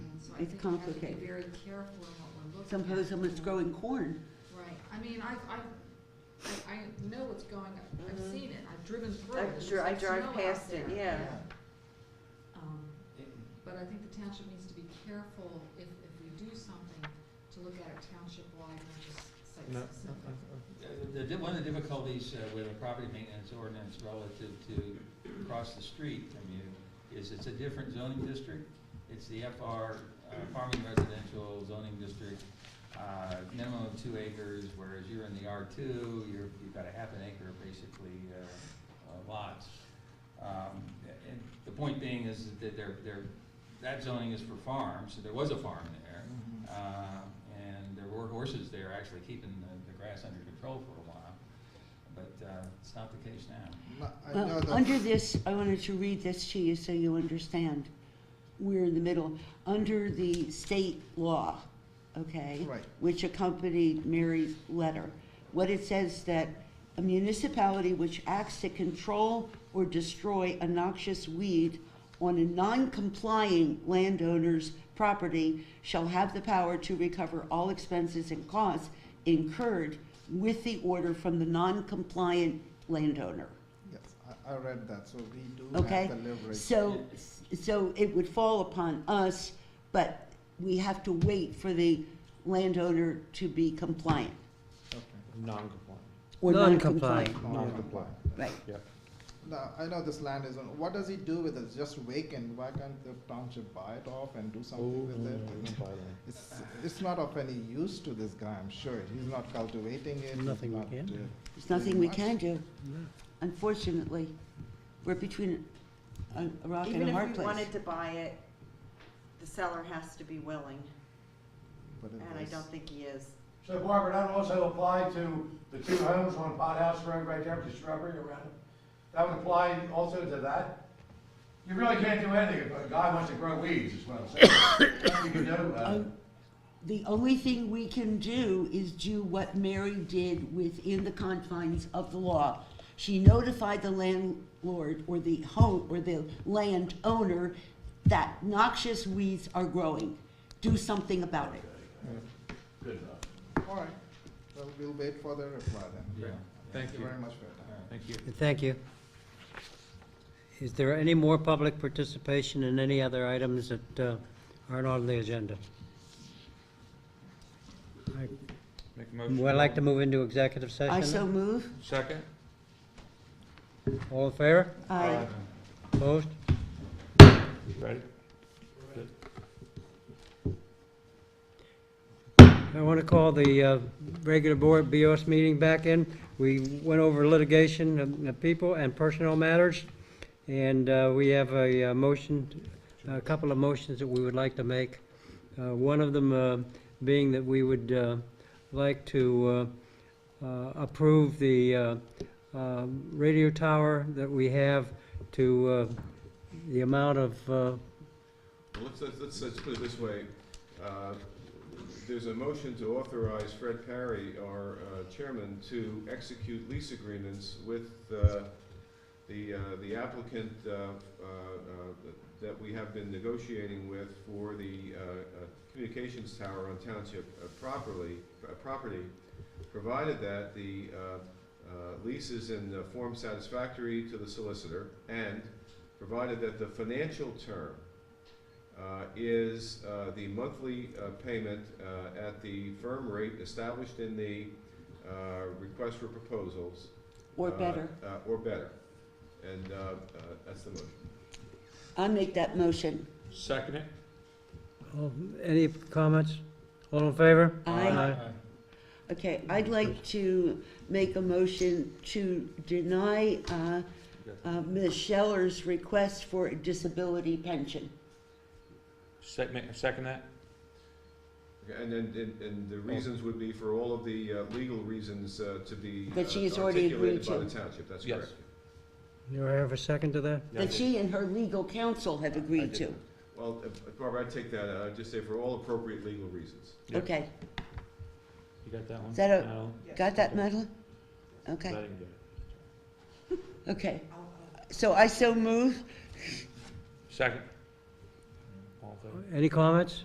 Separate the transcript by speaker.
Speaker 1: I
Speaker 2: It's
Speaker 1: think we have to be
Speaker 2: complicated.
Speaker 1: very careful in what we're looking at.
Speaker 2: Suppose someone's
Speaker 1: you know.
Speaker 2: growing corn.
Speaker 1: Right, I mean, I, I, I- I know what's going, on. I've
Speaker 3: Mhm.
Speaker 1: seen it, I've driven through it.
Speaker 3: I
Speaker 1: It's
Speaker 3: dri- I
Speaker 1: like snow
Speaker 3: drive
Speaker 1: out
Speaker 3: past it,
Speaker 1: there.
Speaker 3: yeah.
Speaker 1: Um,
Speaker 4: It-
Speaker 1: but I think the township needs to be careful if, if we do something, to look at it township-wide, not just
Speaker 5: No,
Speaker 1: site-specific.
Speaker 4: The, the, one of the difficulties uh, with a property maintenance ordinance relative to across the street from you is it's a different zoning district. It's the FR, uh, farming residential zoning district, uh, minimum of two acres, whereas you're in the R two, you're, you've got a half an acre basically, uh, uh, lots. Um, and the point being is that they're, they're, that zoning is for farms, so there was a farm there.
Speaker 2: Mm-hmm.
Speaker 4: Uh, And there were horses there actually keeping the, the grass under control for a while, but uh, it's not the case now.
Speaker 6: No, I know
Speaker 2: Well,
Speaker 6: that-
Speaker 2: under this, I wanted to read this to you so you understand. We're in the middle. Under the state law, okay?
Speaker 6: Right.
Speaker 2: Which accompanied Mary's letter, what it says that a municipality which acts to control or destroy a noxious weed on a non-complying landowner's property shall have the power to recover all expenses and costs incurred with the order from the non-compliant landowner.
Speaker 6: Yes, I, I read that, so we do
Speaker 2: Okay,
Speaker 6: have the leverage.
Speaker 2: So, so it would fall upon us, but we have to wait for the landowner to be compliant
Speaker 6: Okay.
Speaker 5: Non-compliant,
Speaker 2: or
Speaker 7: Non-compliant.
Speaker 2: non-compliant.
Speaker 5: non-compliant,
Speaker 2: Right.
Speaker 5: yep.
Speaker 6: Now, I know this land is on, what does he do with it? It's just vacant, why can't the township buy it off and do something with it?
Speaker 5: Oh, no, by the way.
Speaker 6: It's, it's not of any use to this guy, I'm sure. He's not cultivating it. he's
Speaker 7: Nothing we
Speaker 6: not,
Speaker 7: can
Speaker 6: uh,
Speaker 7: do.
Speaker 2: There's nothing we
Speaker 6: much.
Speaker 2: can do, unfortunately. We're between a a rock and
Speaker 3: Even
Speaker 2: a hard
Speaker 3: if we
Speaker 2: place.
Speaker 3: wanted to buy it, the seller has to be willing,
Speaker 6: But it
Speaker 3: and I
Speaker 6: was-
Speaker 3: don't think he is.
Speaker 8: So Barbara, that also applied to the two homes on Pot House Road right there, with the shrubbery around it? That would apply also to that? You really can't do anything if a guy wants to grow weeds, is what I'm saying. Nothing you can do about it.
Speaker 2: Um, The only thing we can do is do what Mary did within the confines of the law. She notified the landlord or the home, or the landowner that noxious weeds are growing. Do something about it.
Speaker 8: Good enough.
Speaker 6: All right, well, we'll wait for the reply then.
Speaker 4: Yeah.
Speaker 6: Thank you very much for your time.
Speaker 4: All right.
Speaker 5: Thank you.
Speaker 7: Thank you. Is there any more public participation in any other items that uh, aren't on the agenda? I-
Speaker 4: Make a motion.
Speaker 7: Would I like to move into executive session?
Speaker 2: I so move.
Speaker 4: Second?
Speaker 7: All in favor?
Speaker 2: I
Speaker 7: Opposed?
Speaker 5: Ready?
Speaker 7: I want to call the uh, regular board BOS meeting back in. We went over litigation of of people and personnel matters, and uh, we have a uh, motion, a couple of motions that we would like to make. Uh, One of them uh, being that we would uh, like to uh, uh, approve the uh, uh, radio tower that we have to uh, the amount of, uh,
Speaker 9: Well, let's, let's- let's, let's put it this way. Uh, There's a motion to authorize Fred Perry, our uh, chairman, to execute lease agreements with uh, the, uh, the applicant uh, uh, uh, that we have been negotiating with for the uh, uh, communications tower on township uh, properly, uh, property, provided that the uh, uh, lease is in uh, form satisfactory to the solicitor, and provided that the financial term uh, is uh, the monthly uh, payment uh, at the firm rate established in the uh, request for proposals.
Speaker 2: or
Speaker 9: uh,
Speaker 2: better.
Speaker 9: uh, Or better. And uh, uh, that's the motion.
Speaker 2: I make that motion.
Speaker 5: Second it?
Speaker 7: oh, any comments? All in favor?
Speaker 2: Aye.
Speaker 7: Aye.
Speaker 2: Okay, I'd like to make a motion to deny uh, uh, Ms. Scheller's request for a disability pension.
Speaker 5: Second, second that?
Speaker 9: Okay, And then, and- and the
Speaker 2: Oh.
Speaker 9: reasons would be for all of the uh, legal reasons uh, to be
Speaker 2: That she
Speaker 9: uh,
Speaker 2: has already agreed
Speaker 9: articulated by the
Speaker 2: to.
Speaker 9: township, that's
Speaker 5: Yes.
Speaker 9: correct.
Speaker 7: You have a second to that?
Speaker 2: that she and her legal counsel have agreed
Speaker 9: I
Speaker 2: to.
Speaker 9: did. Well, uh, Barbara, I'd take that, uh, I'd just say for all appropriate legal reasons.
Speaker 5: Yeah.
Speaker 2: Okay,
Speaker 5: You got that one?
Speaker 2: Is that a-
Speaker 5: No?
Speaker 2: got that, Madeline?
Speaker 5: I
Speaker 2: Okay,
Speaker 5: didn't get it.
Speaker 2: okay. So I so move.
Speaker 5: Second? All in favor?
Speaker 7: Any comments?